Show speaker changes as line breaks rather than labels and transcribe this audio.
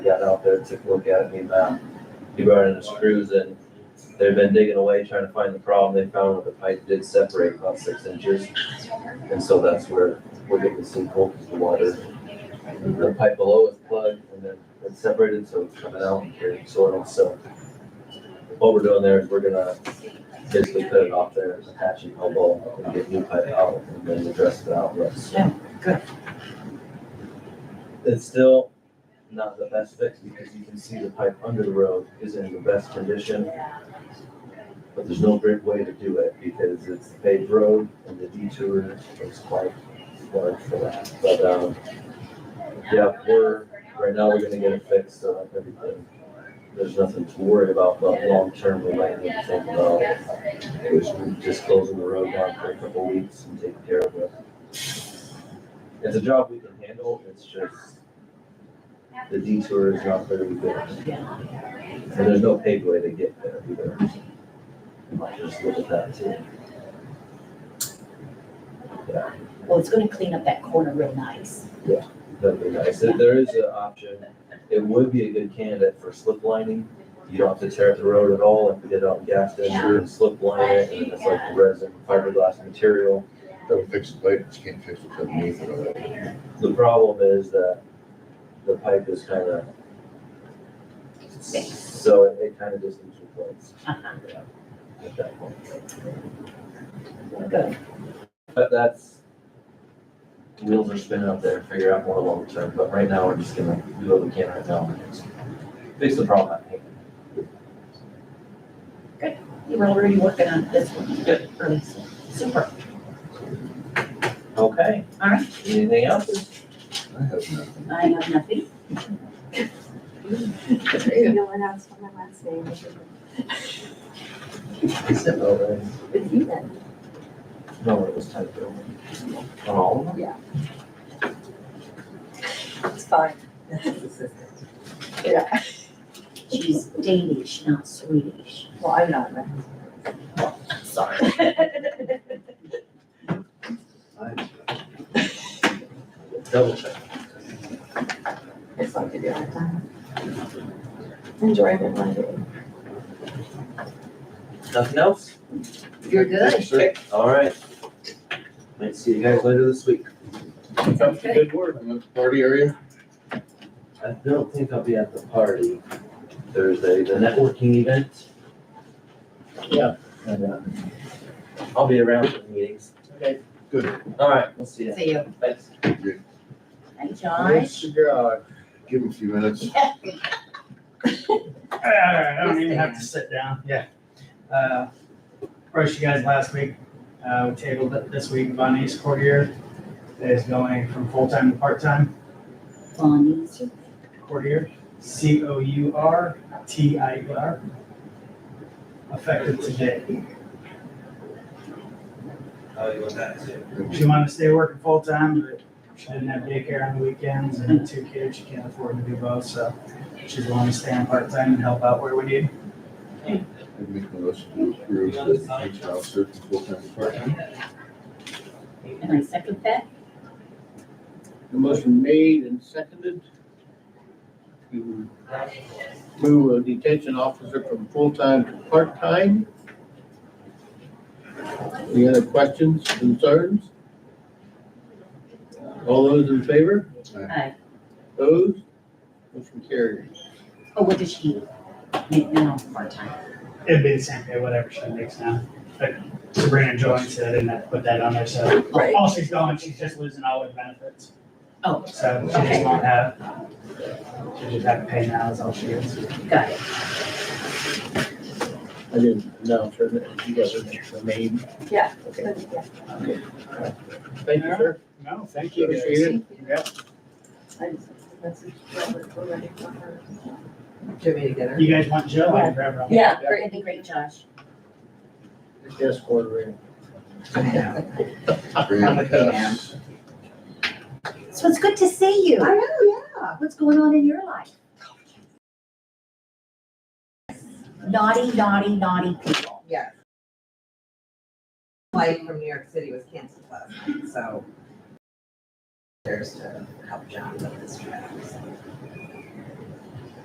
got out there, took a look at it, came back. He brought in the screws and they've been digging away trying to find the problem. They found that the pipe did separate about six inches. And so that's where we're getting the sinkhole, 'cause the water, the pipe below is plugged and then it's separated, so it's coming out and carrying soil, so. What we're doing there is we're gonna basically cut it off there, attach it, elbow, and get new pipe out, and then address the outlets.
Yeah, good.
It's still not the best fix, because you can see the pipe under the road is in the best condition. But there's no great way to do it, because it's a paved road, and the detour is quite large for that, but, um, yeah, we're, right now, we're gonna get it fixed, so like everything, there's nothing to worry about, but long-term, we might need to think about it was just closing the road down for a couple weeks and taking care of it. It's a job we can handle, it's just the detour is not very good. And there's no paved way to get there either. You might just look at that too.
Well, it's gonna clean up that corner real nice.
That'd be nice. If there is an option, it would be a good candidate for slip lining. You don't have to tear up the road at all, if we did it on Gaston, you would slip line it, and it's like resin fiberglass material.
Gotta fix it later, just can't fix what's underneath it already.
The problem is that the pipe is kind of. So it, it kind of just needs replaced.
Uh-huh.
Yeah, At that point.
Good.
But that's. Wheels are spinning up there, figure out more long term, but right now we're just gonna do what we can right now. and just Fix the problem at hand.
You were already working on this one. Good. Super.
Okay.
All right.
Anything else?
I have nothing.
I have nothing.
No one asked for my last name.
No, right?
It's you then.
oh, uh, No, it was typed over. On all of them?
It's fine. Yeah,
She's Danish, not Swedish.
well, I'm not. my-
Sorry.
Double check.
It's not good. yeah, I'm- Enjoy my Monday.
Nothing else?
You're good.
Sir,
All right. Might see you guys later this week.
that's a good word. And that's Party area?
I don't think I'll be at the party Thursday, the networking event. Yeah. And, uh, I'll be around for the meetings. Okay.
Good.
All right, we'll see you.
See you.
Thanks.
Hi, Josh.
God. Give him a few minutes.
Yeah.
I I don't
Yes,
even
they
have to sit down, yeah. Uh, Approached you guys last week, uh, we tabled it this week, Bonnie's courtier is going from full-time to part-time
Bonnie.
courtier, C O U R T I E R. Effective today.
Oh, you want that too?
She wanted to stay working full-time, but she didn't have daycare on the weekends and two kids, she can't afford to do both, so she's willing to stay on part-time and help out where we need.
I'd make a motion to approve the police officer for full-time department.
And I second that.
The motion made and seconded to move a detention officer from full-time to part-time. Any other questions, concerns? All those in favor?
Hi.
Opposed? Motion carries.
Oh, what does she make now? Part-time.
It'd be the same pay, whatever she makes now. But Sabrina joins, so I didn't have to put that on there, so.
Right.
All she's going, she's just losing all her benefits.
Oh,
So she just
Okay.
won't have, she just have to pay now is all she gets.
got it.
I didn't know, sir, that you guys are the main.
Yeah.
Okay, thank you, sir.
No, thank
Appreciate it.
I just messaged Robert already for her.
You guys want Jill? I can grab her.
Yeah,
Great, that'd be great, Josh.
Yes, quarter.
Graham Cass.
So it's good to see you.
I know, yeah.
What's going on in your life? Naughty, naughty, naughty people.
Yes. Flight from New York City was canceled last night, so. There's to help John with this trip. so.